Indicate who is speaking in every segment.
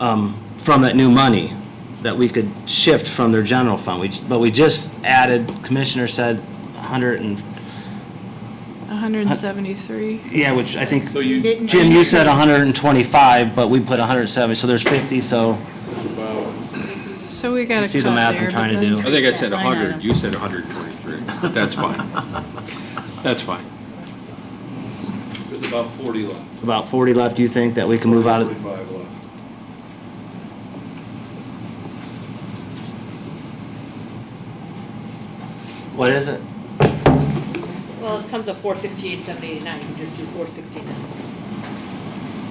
Speaker 1: um, from that new money that we could shift from their general fund. We, j- but we just added, Commissioner said 100 and,
Speaker 2: 173.
Speaker 1: yeah, which I think,
Speaker 3: So you,
Speaker 4: Didn't-
Speaker 1: Jim, you said 125, but we put 170, so there's 50, so,
Speaker 2: So we got to cut there.
Speaker 1: see the math I'm
Speaker 2: but
Speaker 1: trying to
Speaker 2: then-
Speaker 1: do.
Speaker 3: I think I said
Speaker 4: Line item.
Speaker 3: 100, you said 123. That's fine. That's fine.
Speaker 5: There's about forty left.
Speaker 1: about 40 left, you think that we can move out of?
Speaker 5: Forty-five left.
Speaker 1: What is it?
Speaker 6: Well, it comes up four sixty-eight, seven eighty-nine, you just do four sixty-nine.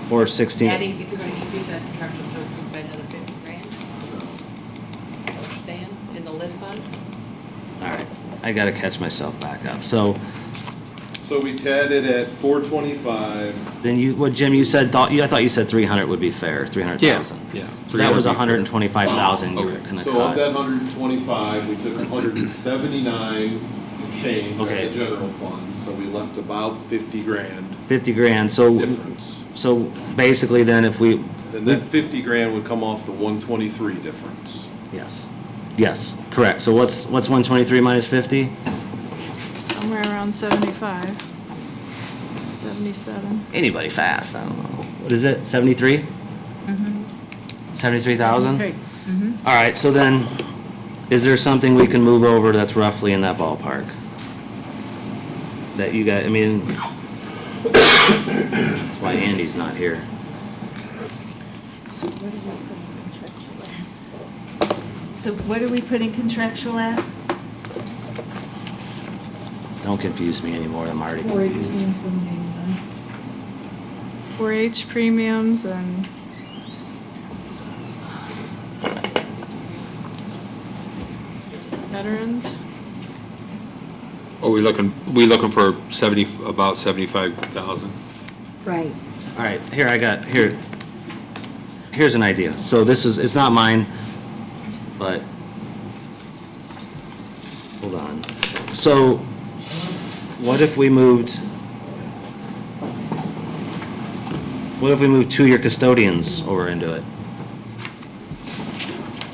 Speaker 1: Or 16?
Speaker 6: Adding, if you're gonna increase that contractual services by another fifty grand. What you Saying, in the lit fund,
Speaker 1: All right, I gotta catch myself back up. So
Speaker 5: So we had it at four twenty-five,
Speaker 1: then you, what Jim, you said, thought, you, I thought you said 300 would be fair, 300,000.
Speaker 3: Yeah.
Speaker 1: So that was
Speaker 3: 300.
Speaker 1: 125,000 you were
Speaker 3: Okay.
Speaker 1: gonna
Speaker 5: so of that
Speaker 1: cut.
Speaker 5: hundred and twenty-five, we took hundred and seventy-nine and change out
Speaker 1: Okay.
Speaker 5: of the general fund, so we left about fifty grand
Speaker 1: 50 grand, so,
Speaker 5: difference.
Speaker 1: so basically then if we,
Speaker 5: Then that fifty grand would come off the one twenty-three difference.
Speaker 1: yes, yes, correct. So what's, what's 123 minus 50?
Speaker 2: Somewhere around 75, 77.
Speaker 1: Anybody fast, I don't know. What is it, 73? 73,000?
Speaker 4: Three.
Speaker 1: All right, so then, is there something we can move over that's roughly in that ballpark? That you got, I mean, that's why Andy's not here.
Speaker 4: So what do we put in contractual at? So what do we put in contractual at?
Speaker 1: Don't confuse me anymore, I'm already confused.
Speaker 2: 4H premiums and veterans.
Speaker 3: Are we looking, we looking for 70, about 75,000?
Speaker 4: Right.
Speaker 1: All right, here, I got, here, here's an idea. So this is, it's not mine, but, hold on. So, what if we moved, what if we moved two-year custodians over into it?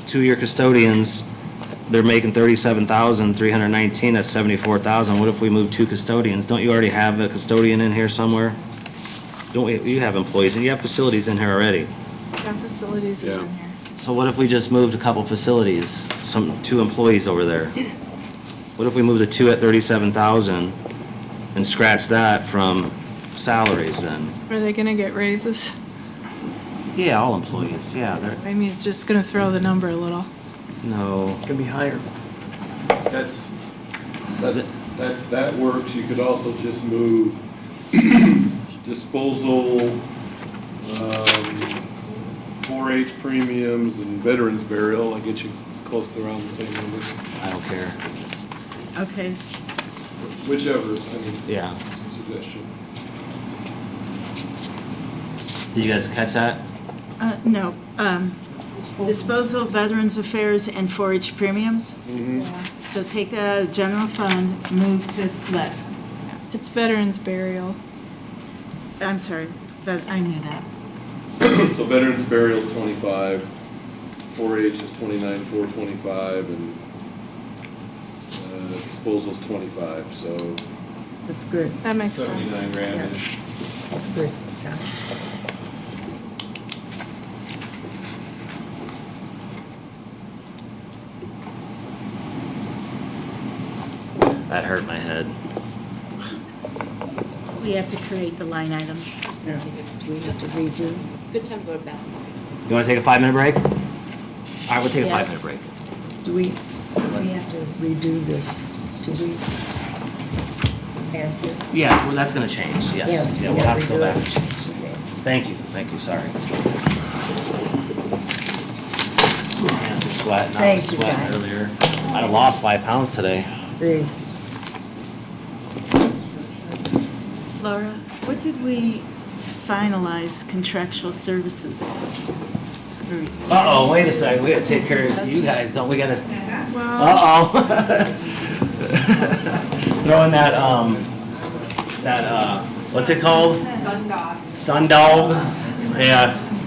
Speaker 1: Two-year custodians, they're making thirty-seven thousand, three hundred nineteen, that's seventy-four thousand. What if we move two custodians? Don't you already have a custodian in here somewhere? Don't, we- you have employees, and you have facilities in here already.
Speaker 2: Yeah, facilities is in
Speaker 3: Yeah.
Speaker 2: there.
Speaker 1: So what if we just moved a couple facilities, some, two employees over there? What if we moved the two at thirty-seven thousand and scratch that from salaries then?
Speaker 2: Are they going to get raises?
Speaker 1: Yeah, all employees, yeah, they're,
Speaker 2: I mean, it's just going to throw the number a little.
Speaker 1: no,
Speaker 7: It's gonna be higher.
Speaker 5: That's, that's, that, that works, you could also just move disposal, um, four H premiums and veterans burial, I get you close to around the same number,
Speaker 1: I don't care,
Speaker 4: Okay,
Speaker 5: whichever, I mean,
Speaker 1: yeah.
Speaker 5: suggestion.
Speaker 1: Did you guys catch that?
Speaker 4: uh, no, um, disposal, of veterans affairs, and 4-H premiums. So take that out of general fund, move to left.
Speaker 2: It's veterans burial.
Speaker 4: I'm sorry, that, I knew that.
Speaker 5: So veterans burial's twenty-five, four H is twenty-nine, four twenty-five, and, uh, disposal's twenty-five, so
Speaker 7: That's good,
Speaker 2: That makes sense.
Speaker 5: seventy-nine grand-ish.
Speaker 7: that's good, Scott.
Speaker 1: That hurt my head.
Speaker 4: We have to create the line items.
Speaker 6: good time to go to bathroom.
Speaker 1: You wanna take a five-minute break? All right, we'll take a
Speaker 4: Yes.
Speaker 1: five-minute break.
Speaker 8: Do we, do we have to redo this? Do we pass this?
Speaker 1: Yeah, well, that's gonna change, yes. Yeah,
Speaker 8: we
Speaker 1: we'll have to go
Speaker 8: redo
Speaker 1: back.
Speaker 8: it. Okay.
Speaker 1: Thank you, thank you, sorry. Hands are sweating, I was
Speaker 8: Thank you,
Speaker 1: sweating
Speaker 8: guys.
Speaker 1: earlier. I done lost five pounds today.
Speaker 8: These.
Speaker 4: Laura, what did we finalize contractual services as?
Speaker 1: Uh-oh, wait a sec, we gotta take care of you guys, don't we gotta,
Speaker 2: Well,
Speaker 1: uh-oh. Throwing that, um, that, uh, what's it called? Sundog. Sundog, yeah.